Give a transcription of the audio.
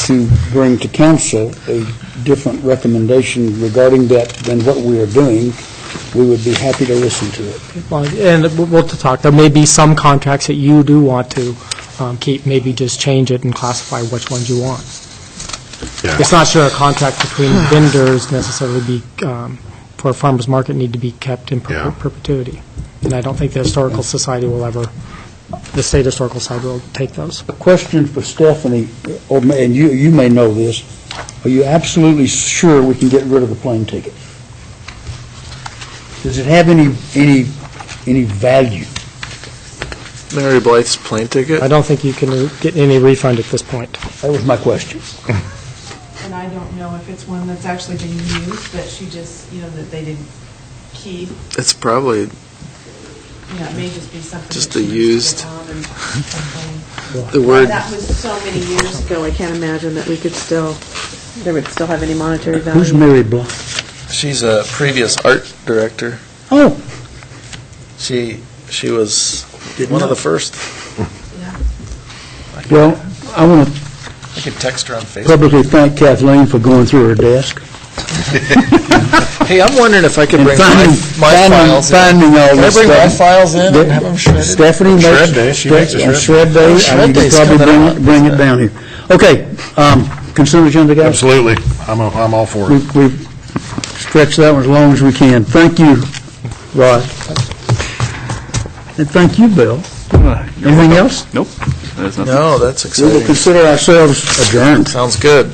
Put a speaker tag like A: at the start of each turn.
A: to bring to council a different recommendation regarding that than what we are doing, we would be happy to listen to it.
B: Well, And we'll- we'll talk, there may be some contracts that you do want to um, keep, maybe just change it and classify which ones you want.
C: Yeah.
B: It's not sure a contract between vendors necessarily be, um, for a farmer's market need to be kept in
C: Yeah.
B: per- perpetuity. And I don't think the Historical Society will ever, the State Historical Society will take those.
A: A question for Stephanie, or ma- and you, you may know this, are you absolutely sure we can get rid of the plane ticket? Does it have any, any, any value?
D: Mary Blythe's plane ticket?
B: I don't think you can get any refund at this point.
A: That was my question.
E: And I don't know if it's one that's actually being used, but she just, you know, that they didn't keep,
D: It's probably,
E: you know, it may just be something.
D: Just
E: that
D: a
E: she
D: used-
E: put on and
D: the
E: something.
D: word,
E: That was so many years ago, I can't imagine that we could still, there would still have any monetary
A: Who's
E: value.
A: Mary Bluff?
D: she's a previous art director.
A: Oh,
D: She, she was
A: Didn't
D: one of
A: know.
D: the first.
A: well, I want to
D: I could text her on Facebook.
A: publicly thank Kathleen for going through her desk
D: Hey, I'm wondering if I could
A: and
D: bring my
A: finding,
D: my
A: finding,
D: files in.
A: finding all
D: Can I
A: this stuff.
D: bring my files in and have them shredded?
A: Stephanie makes...
C: Shred day, she makes a
A: on shred
C: shred
D: day.
A: day, I
D: Shred
A: mean, you
D: day's
A: probably
D: coming
A: bring
D: up.
A: it, bring it down here. Okay, um, consent agenda, guys?
C: Absolutely. I'm, a- I'm all for
A: We-
C: it.
A: We've stretched that one as long as we can. Thank you, Rod. And thank you, Bill. Anything else?
F: Nope, there's nothing.
D: No, that's
A: We will
D: exciting.
A: consider ourselves adjourned.
D: Sounds good.